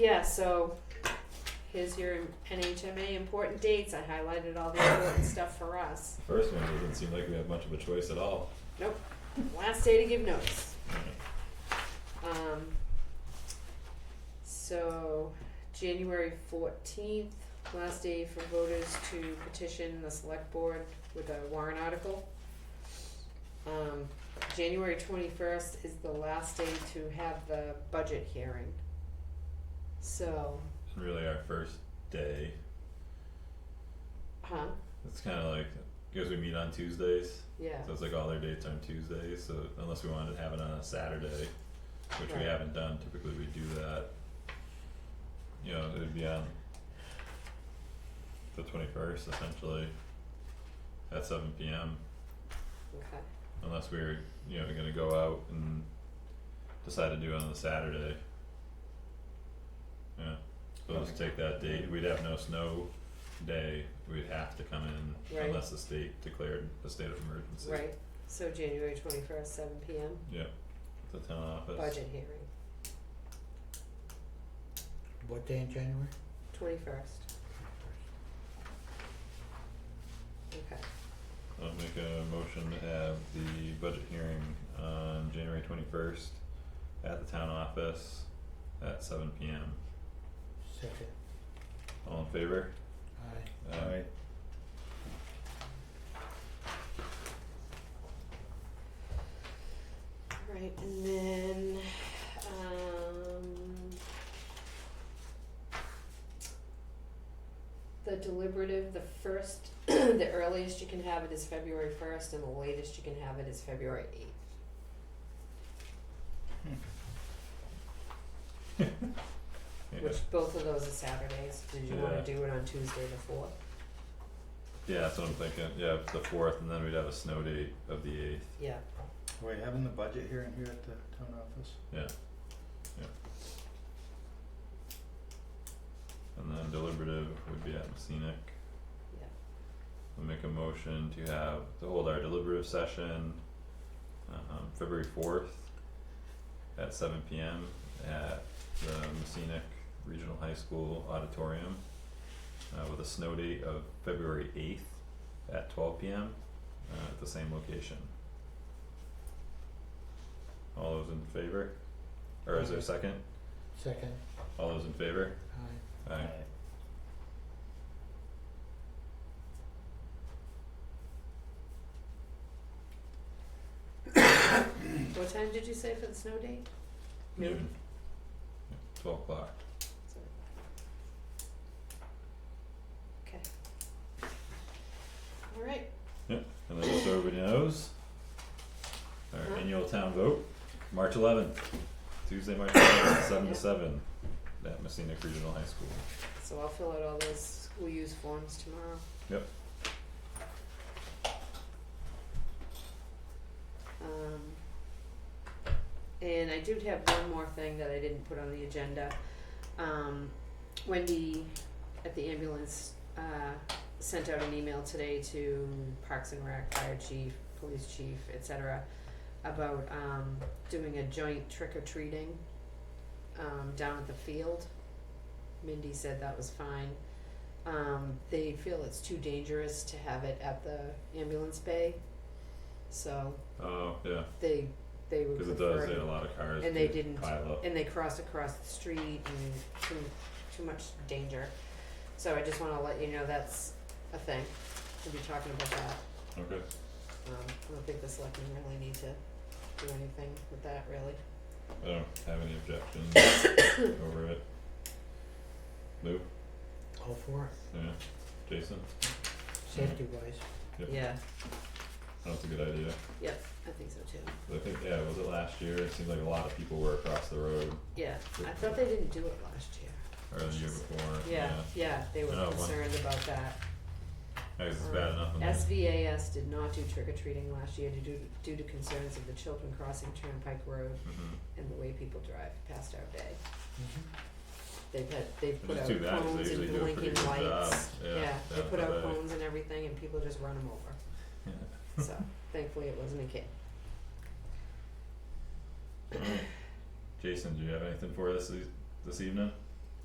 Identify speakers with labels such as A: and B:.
A: Yeah, so here's your NHMA important dates. I highlighted all the important stuff for us.
B: First one doesn't seem like we have much of a choice at all.
A: Nope. Last day to give notice. Um, so, January fourteenth, last day for voters to petition the select board with a warrant article. Um, January twenty-first is the last day to have the budget hearing. So,
B: And really, our first day.
A: huh,
B: It's kind of like because we meet on Tuesdays,
A: yeah,
B: so it's like all their dates are on Tuesdays. So unless we wanted to have it on a Saturday, which we
A: Right.
B: haven't done, typically we do that. You know, it would be on the twenty first essentially at seven p.m.
A: okay,
B: Unless we were you know going to go out and decide to do it on the Saturday. Yeah, so let's take that date. We'd have no snow day. We'd have to come in
A: Right.
B: unless the state declared a state of emergency.
A: right, so January twenty-first, seven P M,
B: The town office.
A: budget hearing,
C: What day in January?
A: twenty-first, okay,
B: I'll make a motion to have the budget hearing on January twenty-first at the town office at seven P M.
C: Second.
B: All in favor?
C: Aye.
B: Aye.
A: Right, and then, um, the deliberative, the first, the earliest you can have it is February first, and the latest you can have it is February eighth.
B: Yeah.
A: Which both of those are Saturdays, did you
B: Yeah.
A: wanna do it on Tuesday the fourth?
B: Yeah, that's what I'm thinking, yeah, the fourth, and then we'd have a snow date of the eighth,
A: Yeah.
D: Are we having the budget hearing here at the town office?
B: yeah, yeah. And then deliberative would be at scenic.
A: Yeah.
B: I'll make a motion to have, to hold our deliberative session, um, February fourth at seven P M at the scenic Regional High School Auditorium, uh, with a snow date of February eighth at twelve P M, uh, at the same location. All those in favor? Or is there a second?
C: Second.
B: All those in favor?
C: Aye.
B: Aye.
A: What time did you say for the snow date?
B: Noon. Yeah, Twelve o'clock.
A: Sorry. Okay. Alright,
B: And then just so everybody knows, our annual town vote, March eleventh, Tuesday, March eleventh, seven to seven, at Messina Regional High School.
A: so I'll fill out all those school use forms tomorrow.
B: Yep.
A: Um, and I do have one more thing that I didn't put on the agenda. Um, Wendy at the ambulance, uh, sent out an email today to Parks and Rec, Fire Chief, Police Chief, et cetera, about, um, doing a joint trick or treating, um, down at the field. Mindy said that was fine. Um, they feel it's too dangerous to have it at the ambulance bay, so
B: Oh, yeah,
A: they, they would
B: cause
A: prefer
B: it does, they had a lot of cars
A: And they
B: do
A: didn't-
B: pile up.
A: and they cross across the street and too too much danger. So I just wanna let you know that's a thing. We'll be talking about that.
B: Okay,
A: Um I don't think the selectmen really need to do anything with that really.
B: I don't have any objections over it. Lou,
C: All for it,
B: yeah, Jason,
C: safety wise.
B: Yep.
A: Yeah,
B: that's a good idea.
A: I think so too.
B: I think, yeah, was it last year? It seemed like a lot of people were across the road
A: Yeah, I thought they didn't do it last year.
B: or the year before, yeah.
A: Yeah, yeah, they were
B: I know, one-
A: concerned about that.
B: I guess it's
A: Um,
B: bad enough in the
A: SVAS did not do trick or treating last year to do due to concerns of the children crossing Turnpike Road
B: Mhm.
A: and the way people drive past our bay.
C: Mm-hmm.
A: They've had, they've put
B: It's
A: out
B: too bad 'cause they
A: cones
B: usually
A: and
B: do a pretty
A: blinking
B: good job.
A: lights,
B: Yeah,
A: yeah, they
B: yeah,
A: put out
B: but I-
A: cones and everything and people just run them over,
B: Yeah.
A: so thankfully it wasn't a kid.
B: Jason, do you have anything for us this, this evening?